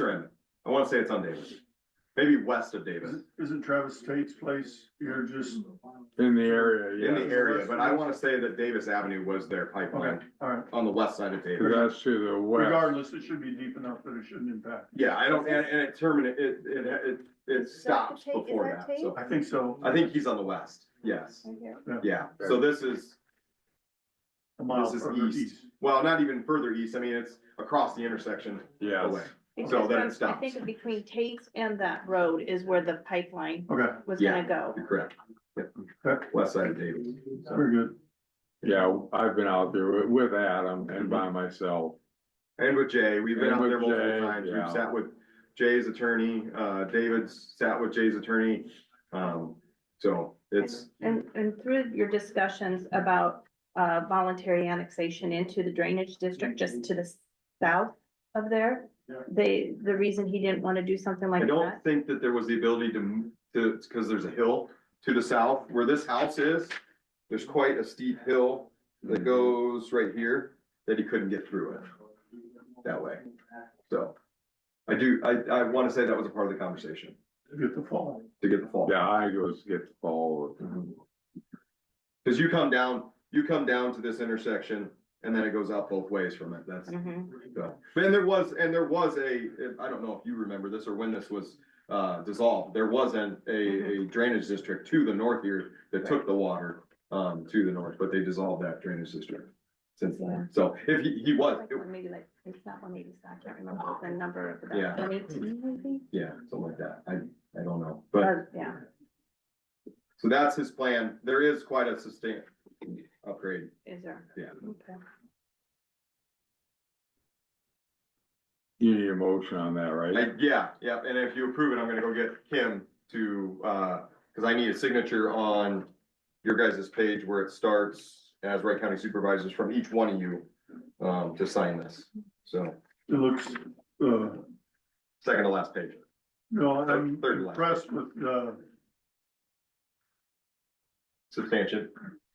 or in, I wanna say it's on Davis, maybe west of Davis, Isn't Travis Tate's place here just? In the area, in yeah. the area, but I wanna say that Davis Avenue was their pipeline Okay, all right. on the west side of Davis. 'Cause That's to the west. Regardless, it should be deep enough that it shouldn't impact. Yeah, I don't, and, and it terminated, it, it, it, it that stops the tape? Is before that that, so. I think so. I think he's on the west, yes, Right here. yeah, so this is, A mile this is further east. east. well, not even further east, I mean, it's across the intersection Yes. away. So then it Because I stops. think between Tate's and that road is where the pipeline Okay, was Yeah. gonna go. You're correct, Yep. Okay. west side of Davis. very good. Yeah, I've been out there with- with Adam Mm-hmm. and by myself. And with Jay, we've been And out there with multiple Jay, times, yeah. we've sat with Jay's attorney, uh, David's sat with Jay's attorney. Um, so it's, And, and through your discussions about, uh, voluntary annexation into the drainage district just to the south of there. Yeah. They, the reason he didn't wanna do something I like that, don't think that there was the ability to, m- to, cause there's a hill to the south where this house is. There's quite a steep hill Mm-hmm. that goes right here that he couldn't get through it that way. So I do, I, I wanna say that was a part of the conversation Get the fall. to get the fall. Yeah, I goes get the ball. Mm-hmm. Cause you come down, you come down to this intersection and then it goes out both ways from it. That's, Mhm. so, and there was, and there was a, I don't know if you remember this or when this was uh dissolved, there was an, a, a drainage district to the north here that took the water um to the north, but they dissolved that drainage district since then. So if he, he was, Like, or maybe like, it's not one eighty, I can't remember the number of Yeah. that, one eighteen maybe? yeah, something like that. I, I don't know, but Uh, Yeah, so that's his plan. There is quite a sustain upgrade. is there? Yeah. Okay. You need a motion on that, I, right? yeah, yeah, and if you approve it, I'm gonna go get Kim to, uh, cause I need a signature on your guys' page where it starts as Wright County Supervisors from each one of you, um, to sign this. So, It looks, uh, second to last page. no, I'm Third last. impressed with, uh, Substantial.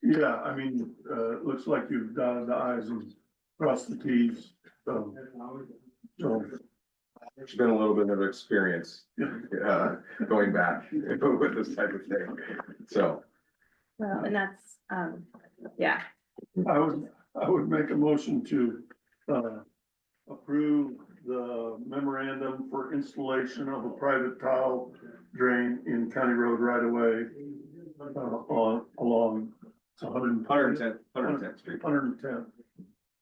yeah, I mean, uh, it looks like you've dotted the i's and crossed the t's. um, So, It's been a little bit of experience, uh, going back with this type of thing. So, Well, and that's, um, yeah, I would, I would make a motion to, uh, approve the memorandum for installation of a private tile drain in County Road right away. Uh, on, along, it's hundred and. hundred and ten, hundred and tenth street. Hundred and ten,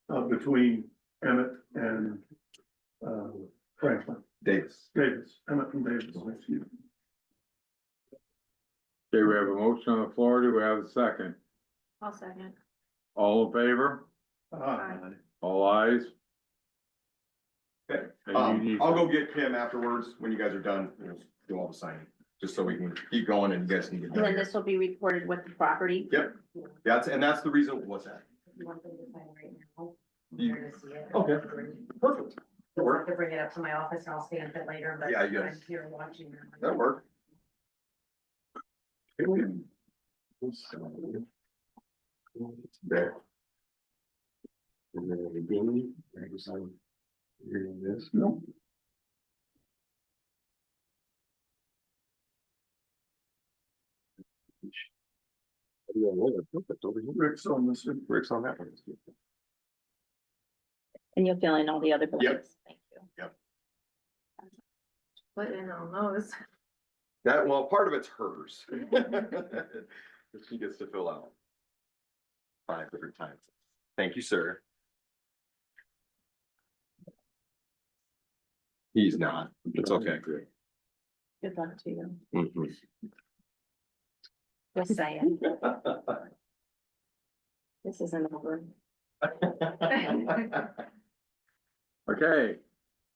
uh, between Emmett and, uh, Franklin, Davis. Davis, Emmett and Davis, excuse me. Okay, we have a motion on the floor. Do we have a second? I'll second. All in favor? Uh, Ah, All eyes. Okay, And you Um, need- I'll go get Kim afterwards when you guys are done. We'll Do all the signing, just so we can keep going and you guys can get And done. then this will be recorded with the property. Yep, that's, and that's the reason, what's that? one thing to find right now. You- Where to see it. Okay. Perfect. That I'll work, have to bring it up to my office and I'll stand it later, but Yeah, you guys- I'm here watching. that work. There. Rick's on this, Rick's on that one. And you'll fill in all the other blanks. Thank you. Put in on those. That, well, part of it's hers. That She gets to fill out. Five different times. Thank you, sir. He's not, it's okay. Good luck to you. Mhm. Just saying, this isn't over. Okay,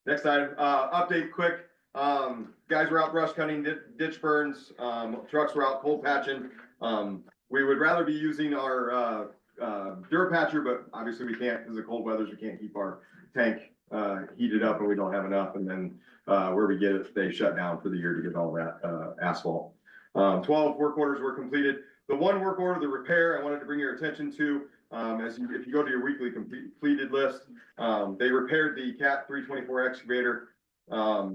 Next item, uh, update quick, um, guys were out brush cutting, di- ditch burns, um, trucks were out cold patching. Um, we would rather be using our, uh, uh, Durapatcher, but obviously we can't, because the cold weathers, we can't keep our tank, uh, heated up and we don't have enough, and then, uh, where we get it, they shut down for the year to get all that, uh, asphalt. Um, twelve work orders were completed, the one work order, the repair, I wanted to bring your attention to, um, as you, if you go to your weekly complete- completed list, um, they repaired the cat three twenty-four excavator, Um,